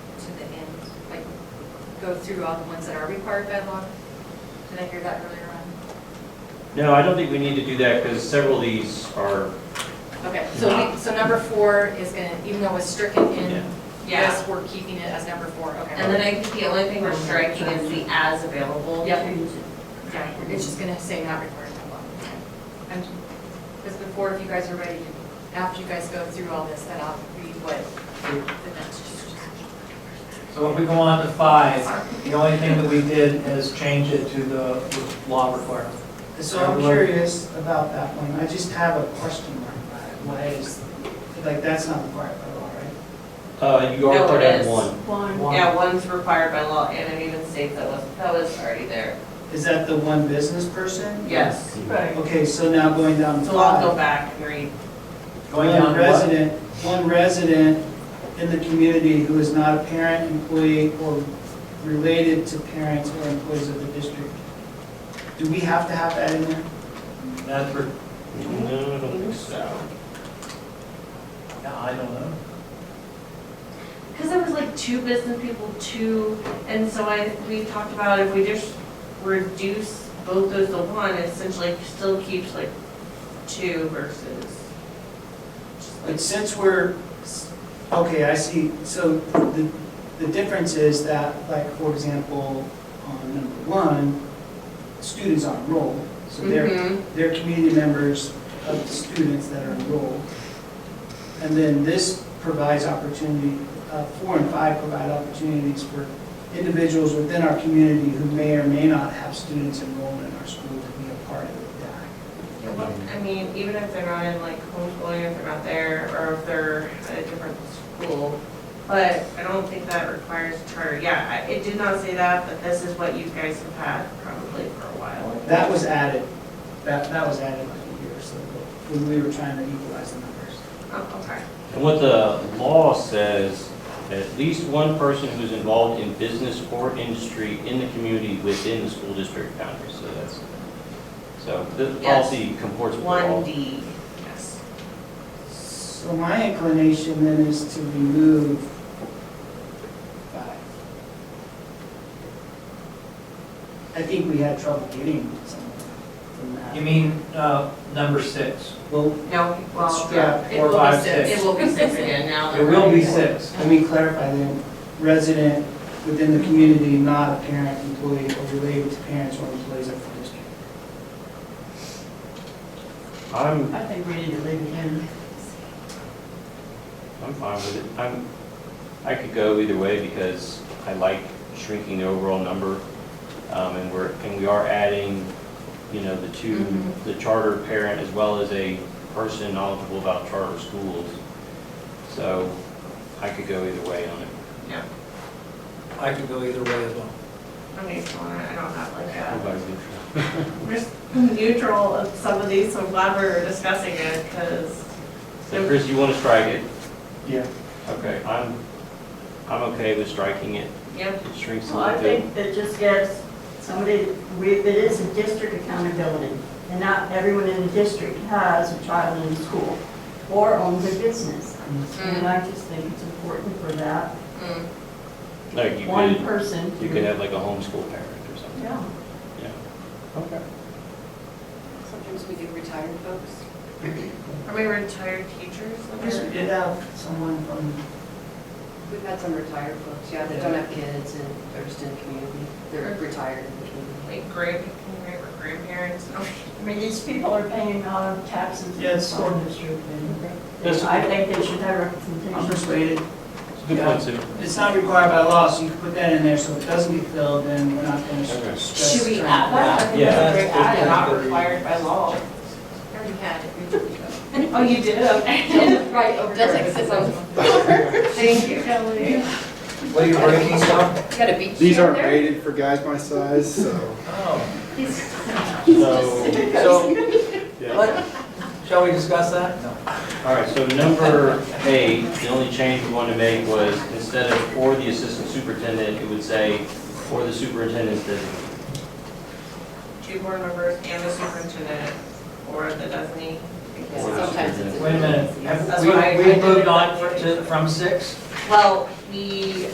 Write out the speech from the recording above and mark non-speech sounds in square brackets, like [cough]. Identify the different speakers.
Speaker 1: go through all the ones that are required by law? Did I hear that earlier on?
Speaker 2: No, I don't think we need to do that because several of these are,
Speaker 1: Okay, so we, so number four is gonna, even though it's stricken in
Speaker 3: Yeah.
Speaker 1: this, we're keeping it as number four,
Speaker 3: And
Speaker 1: okay.
Speaker 3: then I think the only thing we're striking is the as available.
Speaker 1: Yep. Yeah, It's just gonna say not required by law. And, because before, if you guys are ready, after you guys go through all this, then I'll read what the next.
Speaker 4: So if we go on to five, the only thing that we did is change it to the law requirement.
Speaker 5: So I'm curious about that one, I just have a question mark about it, why is, like, that's not required by law, right?
Speaker 2: uh, you are
Speaker 3: No,
Speaker 2: part
Speaker 3: it
Speaker 2: of
Speaker 3: is.
Speaker 2: one.
Speaker 4: One.
Speaker 3: Yeah, one's required by law, and it even states that was, that was already there.
Speaker 5: Is that the one business person?
Speaker 3: Yes.
Speaker 5: Okay, so now going down to
Speaker 3: So I'll go
Speaker 5: five.
Speaker 3: back and read.
Speaker 4: Going down
Speaker 5: One
Speaker 4: to what?
Speaker 5: resident, one resident in the community who is not a parent, employee, or related to parents or employees of the district. Do we have to have that in there?
Speaker 4: That's for,
Speaker 2: No, I don't think so.
Speaker 4: no, I don't know.
Speaker 3: Because there was like two business people, two, and so I, we talked about if we just reduce both those to one, it essentially still keeps like two versus.
Speaker 5: But since we're, okay, I see, so the, the difference is that, like, for example, on number one, students are enrolled, so they're,
Speaker 3: Mhm.
Speaker 5: they're community members of the students that are enrolled. And then this provides opportunity, uh, four and five provide opportunities for individuals within our community who may or may not have students enrolled in our school to be a part of the DAC.
Speaker 3: I mean, even if they're not in like homeschooling, if they're not there, or if they're at a different school, but I don't think that requires charter. Yeah, I- it did not say that, but this is what you guys have had probably for a while.
Speaker 5: That was added, that, that was added like a year or so ago, when we were trying to equalize the numbers.
Speaker 3: Oh, okay.
Speaker 2: And what the law says, at least one person who's involved in business or industry in the community within the school district boundaries, so that's, so the
Speaker 3: Yes.
Speaker 2: policy comports with the
Speaker 3: One
Speaker 2: law.
Speaker 3: D, yes.
Speaker 5: So my inclination then is to remove five. I think we had trouble getting someone from that.
Speaker 4: You mean, uh, number six?
Speaker 5: Well,
Speaker 3: No, well,
Speaker 5: Yeah,
Speaker 3: yeah.
Speaker 4: four,
Speaker 3: it will be
Speaker 4: five, six.
Speaker 3: It will be six again now.
Speaker 4: It will be six.
Speaker 5: let me clarify then, resident within the community, not a parent, employee, or related to parents or employees of the district.
Speaker 2: I'm,
Speaker 6: I think we need to leave it in.
Speaker 2: I'm fine with it. I'm, I could go either way because I like shrinking the overall number. Um, and we're, and we are adding, you know, the two,
Speaker 6: Mm-hmm.
Speaker 1: Mhm.
Speaker 2: the charter parent as well as a person knowledgeable about charter schools. So I could go either way on it.
Speaker 3: Yeah,
Speaker 4: I could go either way as well.
Speaker 3: I'm neutral, on it. I don't have like a,
Speaker 2: Everybody's neutral.
Speaker 3: I'm just neutral of some of these, so I'm glad we're discussing it, because
Speaker 2: So Chris, you want to strike it?
Speaker 5: Yeah.
Speaker 2: Okay, I'm, I'm okay with striking it.
Speaker 3: yeah,
Speaker 2: It shrinks a
Speaker 6: Well, I
Speaker 2: little bit.
Speaker 6: think that just gives somebody, we- it is a district accountability, and not everyone in the district has a child in school or owns a business. And I just think it's important for that
Speaker 2: Like you
Speaker 6: one
Speaker 2: could,
Speaker 6: person.
Speaker 2: you could have like a homeschool parent or something.
Speaker 6: Yeah.
Speaker 2: Okay.
Speaker 1: Sometimes we do retired folks.
Speaker 3: are we retired teachers?
Speaker 5: I guess we did have someone from
Speaker 7: We've had some retired folks, yeah, that don't have kids and they're just in the community, they're retired in the community.
Speaker 3: Like grand, grand- grandparents,
Speaker 6: I mean, these people are paying uh, taxes in the
Speaker 5: Yes.
Speaker 6: school district, and
Speaker 2: Yes.
Speaker 6: I think they should have representation.
Speaker 5: I'm persuaded.
Speaker 2: It's a good point, Sue.
Speaker 5: It's not required by law, so you can put that in there, so it doesn't get filled, then we're not gonna
Speaker 2: Okay.
Speaker 5: stress.
Speaker 1: Should we
Speaker 5: trying
Speaker 1: add
Speaker 5: to-
Speaker 6: that?
Speaker 2: Yeah.
Speaker 3: They're not required by law.
Speaker 1: I already
Speaker 3: [laughs]
Speaker 1: had it. We did it.
Speaker 3: Oh, you did?
Speaker 7: Right, over
Speaker 1: That's
Speaker 7: there.
Speaker 1: like six months.
Speaker 3: Thank you, Kelly.
Speaker 4: What are you breaking down?
Speaker 1: You got a beach
Speaker 8: These
Speaker 1: chair
Speaker 8: aren't
Speaker 1: there?
Speaker 8: rated for guys my size, so.
Speaker 4: Oh,
Speaker 2: So,
Speaker 4: so,
Speaker 8: yeah.
Speaker 4: shall we discuss that? No.
Speaker 2: all right, so number eight, the only change we wanted to make was instead of "or the assistant superintendent," it would say "or the superintendent's designee."
Speaker 3: Two board members and the superintendent, or the designee.
Speaker 7: Sometimes it's.
Speaker 4: Wait a minute,
Speaker 7: Yes.
Speaker 4: have we, we moved on to, from six?
Speaker 3: Well, we